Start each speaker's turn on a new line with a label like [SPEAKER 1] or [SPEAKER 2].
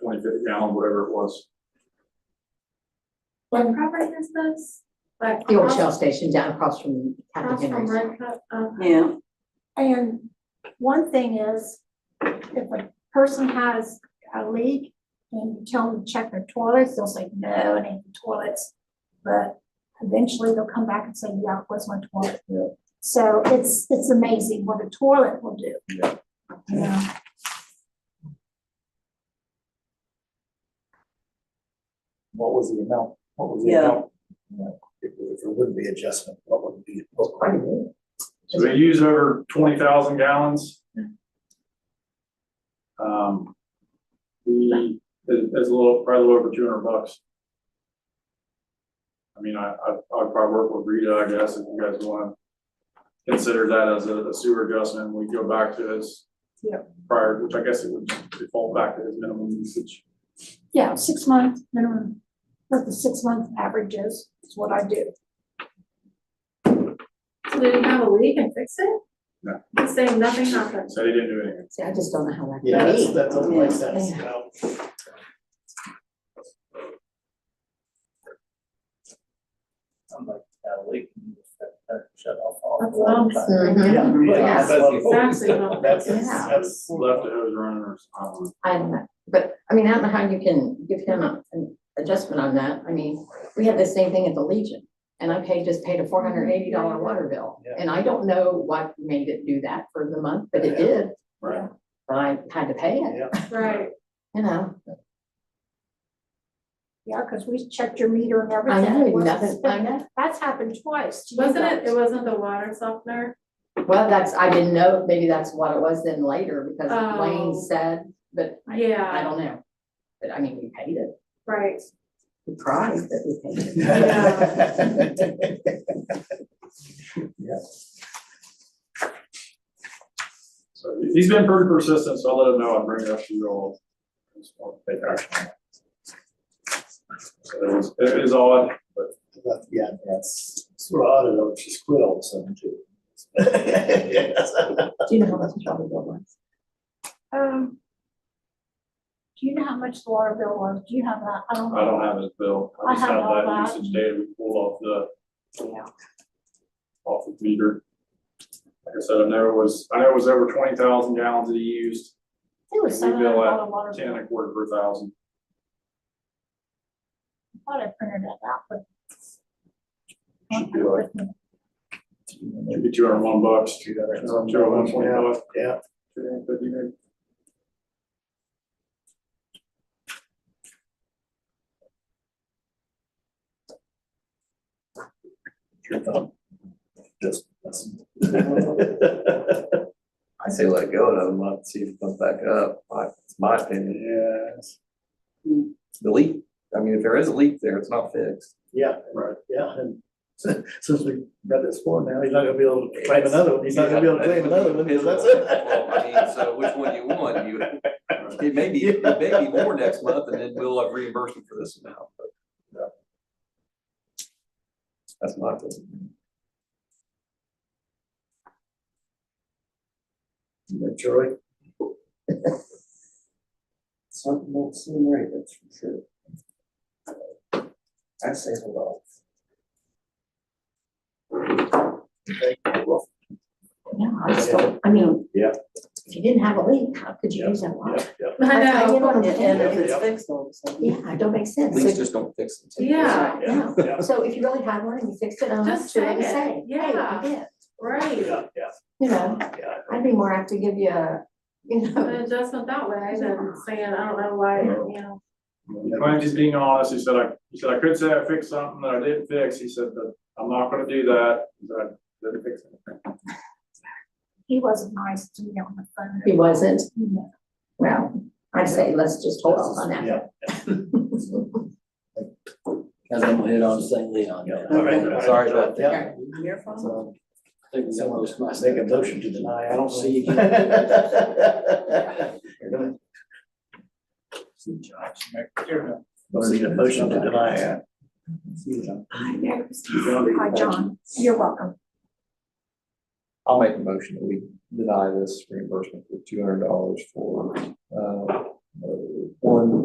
[SPEAKER 1] twenty-fifth gallon, whatever it was.
[SPEAKER 2] What property is this? Like
[SPEAKER 3] The old
[SPEAKER 2] across-
[SPEAKER 3] Shell station down across from
[SPEAKER 2] Across
[SPEAKER 3] Captain
[SPEAKER 2] from
[SPEAKER 3] Henry's.
[SPEAKER 2] Red Cup, um,
[SPEAKER 4] Yeah,
[SPEAKER 2] And one thing is, if a person has a leak and you tell them to check their toilets, they'll say, no, it ain't the toilets. But eventually they'll come back and say, yeah, it was my toilet. So it's, it's amazing what a toilet will do.
[SPEAKER 1] Yeah.
[SPEAKER 2] Yeah.
[SPEAKER 5] What was the amount? What was the
[SPEAKER 4] Yeah.
[SPEAKER 5] amount? Yeah. If if there wouldn't be adjustment, what would be? what would be-
[SPEAKER 1] So they use over twenty thousand gallons. Um, the, that's a little, probably a little over two hundred bucks. I mean, I, I, I'd probably work with Rita, I guess, if you guys wanna consider that as a a sewer adjustment, we go back to his
[SPEAKER 2] Yeah.
[SPEAKER 1] prior, which I guess it would default back to his minimum usage.
[SPEAKER 2] Yeah, six months minimum, but the six month averages is what I do.
[SPEAKER 6] So do you have a leak and fix it?
[SPEAKER 1] No.
[SPEAKER 6] He's saying nothing happened.
[SPEAKER 1] So he didn't do anything.
[SPEAKER 3] See, I just don't know how that. could
[SPEAKER 5] Yeah, that's-
[SPEAKER 3] be.
[SPEAKER 5] that doesn't make sense, you know? I'm like, uh, that leak, that, that uh, shut off all.
[SPEAKER 6] That's what I'm saying.
[SPEAKER 3] Mhm.
[SPEAKER 5] Yeah,
[SPEAKER 4] Yeah,
[SPEAKER 5] yeah,
[SPEAKER 6] that's
[SPEAKER 5] that's-
[SPEAKER 6] exactly what I'm
[SPEAKER 5] That's,
[SPEAKER 3] thinking.
[SPEAKER 5] that's.
[SPEAKER 1] left it was running or something.
[SPEAKER 3] I don't know, but, I mean, I don't know how you can give him a- an adjustment on that, I mean, we had the same thing at the Legion. And I paid, just paid a four hundred eighty dollar water bill,
[SPEAKER 5] Yeah.
[SPEAKER 3] and I don't know what made it do that for the month, but it
[SPEAKER 5] Yeah.
[SPEAKER 3] did,
[SPEAKER 1] Right.
[SPEAKER 3] but I had to pay it,
[SPEAKER 5] Yeah.
[SPEAKER 6] Right.
[SPEAKER 3] you know?
[SPEAKER 2] Yeah, because we checked your meter and
[SPEAKER 3] I
[SPEAKER 2] everything.
[SPEAKER 3] know,
[SPEAKER 2] It wasn't
[SPEAKER 3] nothing, I know,
[SPEAKER 2] That's happened twice. to you
[SPEAKER 6] Wasn't it,
[SPEAKER 2] guys.
[SPEAKER 6] it wasn't the water softener?
[SPEAKER 3] well, that's, I didn't know, maybe that's what it was then later, because Wayne
[SPEAKER 6] Oh.
[SPEAKER 3] said, but I, I
[SPEAKER 6] Yeah,
[SPEAKER 3] don't know. But I mean, we paid it,
[SPEAKER 6] right.
[SPEAKER 3] we cried, but we paid it.
[SPEAKER 1] So he's been pretty persistent, so I'll let him know I'll bring it up to you all. Just want to Take action. So It was, it is odd, but
[SPEAKER 5] But, Yeah, that's, sort of odd, I know, she's quit all of a sudden too. Yes.
[SPEAKER 3] Do you know how much the water bill was?
[SPEAKER 2] Um. Do you know how much the water bill was? Do you have that? I don't.
[SPEAKER 1] I don't have his bill. I
[SPEAKER 2] I
[SPEAKER 1] just
[SPEAKER 2] have
[SPEAKER 1] have
[SPEAKER 2] all
[SPEAKER 1] that
[SPEAKER 2] that.
[SPEAKER 1] usage data we pulled off the,
[SPEAKER 2] Yeah.
[SPEAKER 1] off the meter. Like I said, I know it was, I know it was over twenty thousand gallons that he used,
[SPEAKER 2] It was
[SPEAKER 1] We
[SPEAKER 2] seven
[SPEAKER 1] bill
[SPEAKER 2] hundred
[SPEAKER 1] at
[SPEAKER 2] dollar water
[SPEAKER 1] ten
[SPEAKER 2] bill.
[SPEAKER 1] and a quarter per thousand.
[SPEAKER 2] I thought I printed that out, but.
[SPEAKER 1] Should be like, should be two hundred and one bucks. Two hundred and one
[SPEAKER 5] Yeah.
[SPEAKER 1] bucks.
[SPEAKER 5] Yeah.
[SPEAKER 1] Two hundred and fifty maybe.
[SPEAKER 5] Your thumb. Just. that's-
[SPEAKER 7] I say let go another month, see if it comes back up, my, it's my opinion,
[SPEAKER 5] Yes.
[SPEAKER 7] the leak, I mean, if there is a leak there, it's not fixed.
[SPEAKER 5] Yeah,
[SPEAKER 1] Right.
[SPEAKER 5] yeah, and since since we got this one now, he's not gonna be able to claim another one, he's not gonna be able to claim another one, because that's
[SPEAKER 7] Well, I mean, so which one do you want, you, it may be, it may be more next month, and then we'll have reimbursement for this amount, but. yeah. That's my opinion.
[SPEAKER 5] it. Troy.
[SPEAKER 7] Something won't seem right, that's for sure. I say hello.
[SPEAKER 3] Yeah, I just don't, I mean.
[SPEAKER 5] Yeah.
[SPEAKER 3] If you didn't have a leak, how could you use that water?
[SPEAKER 5] Yeah, yeah.
[SPEAKER 6] I know.
[SPEAKER 3] You know what I'm
[SPEAKER 5] And if
[SPEAKER 3] saying?
[SPEAKER 5] it's
[SPEAKER 7] fixed, all of a sudden.
[SPEAKER 3] Yeah, it don't make sense.
[SPEAKER 7] Leaks
[SPEAKER 3] So-
[SPEAKER 7] just don't fix it.
[SPEAKER 6] Yeah,
[SPEAKER 3] Yeah,
[SPEAKER 5] Yeah.
[SPEAKER 3] so if you really had one and you fixed it, I'm not
[SPEAKER 6] Just
[SPEAKER 3] sure what to
[SPEAKER 6] say it.
[SPEAKER 3] say. Hey,
[SPEAKER 6] Yeah.
[SPEAKER 3] you did,
[SPEAKER 6] right.
[SPEAKER 5] Yeah, yeah,
[SPEAKER 3] you know,
[SPEAKER 5] yeah.
[SPEAKER 3] I'd be more apt to give you a, you know,
[SPEAKER 6] An adjustment that way than saying, I don't know why, you know.
[SPEAKER 1] He claims he's being honest, he said, I, he said, I could say I fixed something that I didn't fix, he said, but I'm not gonna do that, He said, I didn't fix anything.
[SPEAKER 2] He wasn't nice to me on the phone.
[SPEAKER 3] he wasn't,
[SPEAKER 2] No.
[SPEAKER 3] well, I say, let's just hold off on that.
[SPEAKER 5] Yeah.
[SPEAKER 8] Cause I'm hit on St. Leon.
[SPEAKER 5] Yeah, all right, all right.
[SPEAKER 8] Sorry about that.
[SPEAKER 5] Yeah.
[SPEAKER 3] Your fault.
[SPEAKER 8] So, I think that
[SPEAKER 5] Someone
[SPEAKER 8] was my-
[SPEAKER 5] just make a motion to deny.
[SPEAKER 8] I don't see.
[SPEAKER 5] We'll see a motion to deny. uh,
[SPEAKER 2] I know. Hi, John. You're welcome.
[SPEAKER 7] I'll make a motion that we deny this reimbursement for two hundred dollars for, uh, uh, one